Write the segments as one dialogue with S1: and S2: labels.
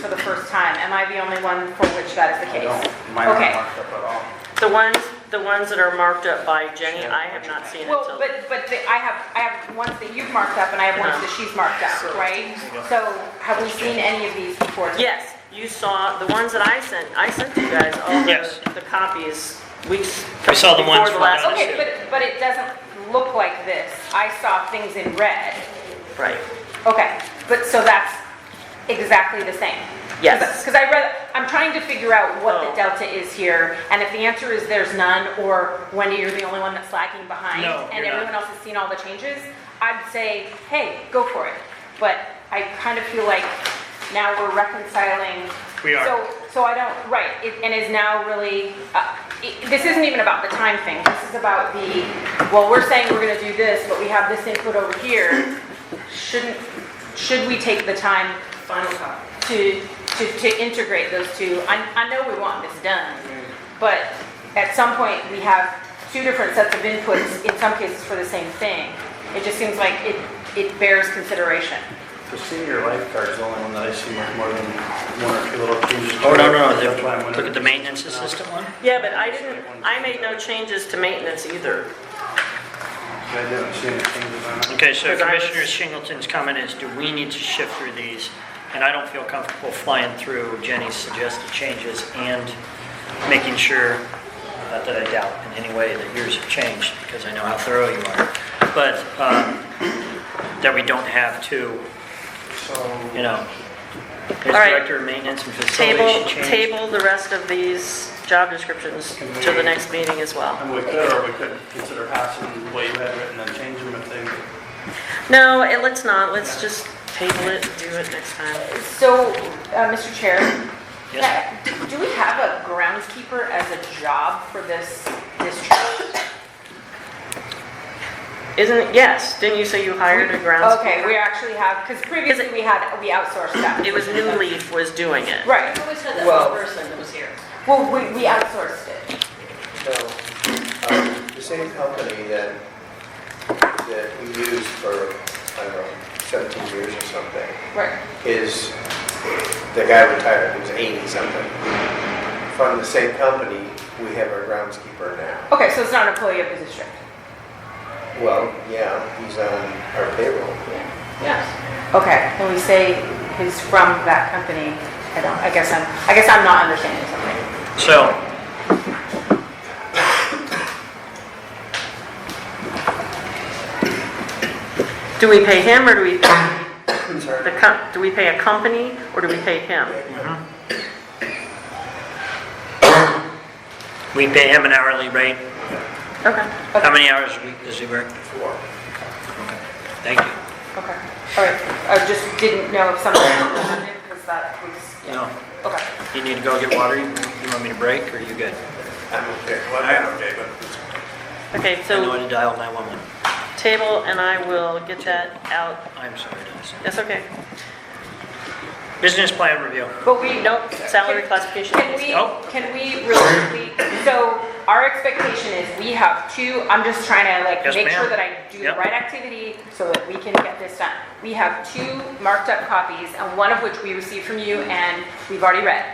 S1: for the first time. Am I the only one for which that is the
S2: I
S1: case?
S2: don't, mine aren't
S1: Okay.
S2: marked up at all.
S3: The ones, the ones that are marked up by Jenny, I have not seen
S1: Well,
S3: until.
S1: but, but the- I have, I have ones that you've marked up and I have ones that she's marked up, right? So have we seen any of these before?
S3: Yes, you saw, the ones that I sent, I sent you guys all
S4: Yes.
S3: the, the copies weeks.
S4: We saw the ones
S3: before
S4: from
S3: last-
S1: Okay, but, but it doesn't look like this. I saw things in red.
S3: Right,
S1: Okay, but, so that's exactly the same?
S3: yes.
S1: Because I read, I'm trying to figure out what the
S3: Oh.
S1: delta is here, and if the answer is there's none, or Wendy, you're the only one that's lagging behind,
S4: No,
S1: and
S4: you're not.
S1: everyone else has seen all the changes, I'd say, hey, go for it. But I kind of feel like now we're reconciling.
S4: We are.
S1: So, so I don't, right, it- and is now really, uh, it- this isn't even about the time thing. This is about the, well, we're saying we're gonna do this, but we have this input over here. Shouldn't, should we take the time to, to, to integrate those two? I, I know we want this done, but at some point, we have two different sets of inputs, in some cases for the same thing. It just seems like it, it bears consideration.
S2: The senior lifeguard is the only one that I see with more than one or two little changes.
S4: Oh, no, no,
S2: That's why I'm
S4: the- look at
S2: wondering.
S4: the maintenance assistant one.
S3: Yeah, but I didn't, I made no changes to maintenance either.
S2: I didn't see any changes on it.
S4: Okay, so
S3: Because I was-
S4: Commissioner Shingleton's comment is, do we need to shift through these? And I don't feel comfortable flying through Jenny's suggested changes and making sure, not that I doubt in any way that yours have changed, because I know how thorough you are, but um, that we don't have to,
S2: So,
S4: you know, as
S3: All right.
S4: director of maintenance and facilities
S3: Table,
S4: should change.
S3: table the rest of these job descriptions to the next meeting as well.
S2: and we could, or we could consider passing what you had written and change them if they,
S3: No, it, let's not, let's just table it, do it next time.
S1: So, uh, Mr. Chair,
S4: Yes, ma'am.
S1: Uh, Do do we have a groundskeeper as a job for this district?
S3: Isn't, yes, didn't you say you hired a grounds?
S1: Okay, we actually have, because previously we had, we outsourced that.
S3: It was New Leaf was doing it.
S1: Right,
S5: Who was that
S6: Well-
S5: one person that was here?
S1: well, we, we outsourced it.
S6: No, um, the same company that, that we used for, I don't know, 17 years or something,
S1: Right.
S6: is, the guy retired, he was 80 something. From the same company, we have our groundskeeper now.
S1: Okay, so it's not an employee of the district?
S6: Well, yeah, he's on our payroll.
S5: Yes.
S1: Okay, when we say he's from that company, I don't, I guess I'm, I guess I'm not understanding something.
S4: So,
S3: Do we pay him or do we pay the,
S6: Sorry.
S3: com- do we pay a company or do we pay him?
S4: we pay him an hourly rate.
S3: Okay.
S4: How many hours a week does he work?
S6: Four.
S4: Thank you.
S1: Okay, all right, I just didn't know if something, because that was,
S4: You know,
S1: okay.
S4: you need to go get water, you you want me to break, or you good?
S6: I'm okay, well, I'm okay, but
S3: Okay,
S4: I know how
S3: so
S4: to dial 911.
S3: table and I will get that out.
S4: I'm sorry, Dennis.
S3: That's okay.
S4: Business plan review.
S1: But we,
S3: Nope, salary
S1: Can-
S3: classification.
S1: Can we,
S4: Oh.
S1: can we really, so our expectation is we have two, I'm just trying to like
S4: Yes,
S1: make sure
S4: ma'am.
S1: that I do the
S4: Yep.
S1: right activity so that we can get this done. We have two marked up copies and one of which we received from you and we've already read.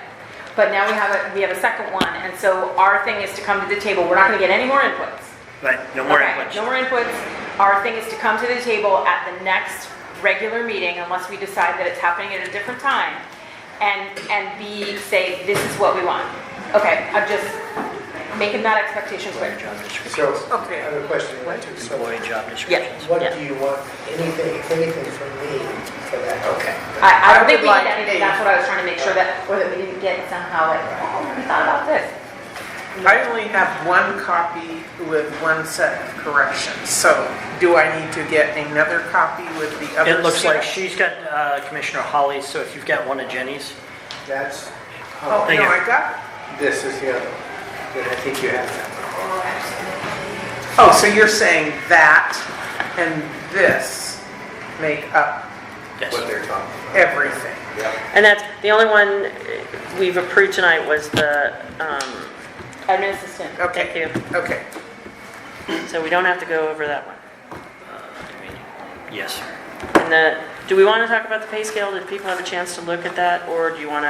S1: But now we have a, we have a second one and so our thing is to come to the table, we're not gonna get any more inputs.
S4: Right, no more
S1: Okay,
S4: inputs.
S1: No more inputs. Our thing is to come to the table at the next regular meeting, unless we decide that it's happening at a different time, and, and be, say, this is what we want. Okay, I'm just making that expectation
S4: Employee
S1: clear.
S4: job description.
S6: So, I
S1: Okay.
S6: have a question, what do, so
S4: Employee job descriptions.
S6: what
S3: Yeah.
S6: do you want, anything, anything from me for that? Okay.
S1: I, I don't think
S5: would
S1: we need
S5: like
S1: anything,
S5: a-
S1: that's what I was trying to make sure that, or that we didn't get somehow like, oh, I never thought about this.
S7: I only have one copy with one set of corrections, so do I need to get another copy with the other?
S4: It looks like
S7: set?
S4: she's got uh, Commissioner Holly's, so if you've got one of Jenny's.
S6: That's,
S7: Oh,
S4: Thank
S7: no,
S4: you.
S7: I got,
S6: this is the other, one. then I think you have that.
S7: oh, so you're saying that and this make up
S6: what
S4: Yes.
S6: they're talking about.
S7: everything?
S6: Yeah.
S3: And that's, the only one uh, we've approved tonight was the, um,
S1: Admin assistant.
S7: Okay.
S3: thank you.
S7: Okay,
S3: So we don't have to go over that one.
S4: Yes.
S3: And the, Do we want to talk about the pay scale? Did people have a chance to look at that, or do you want to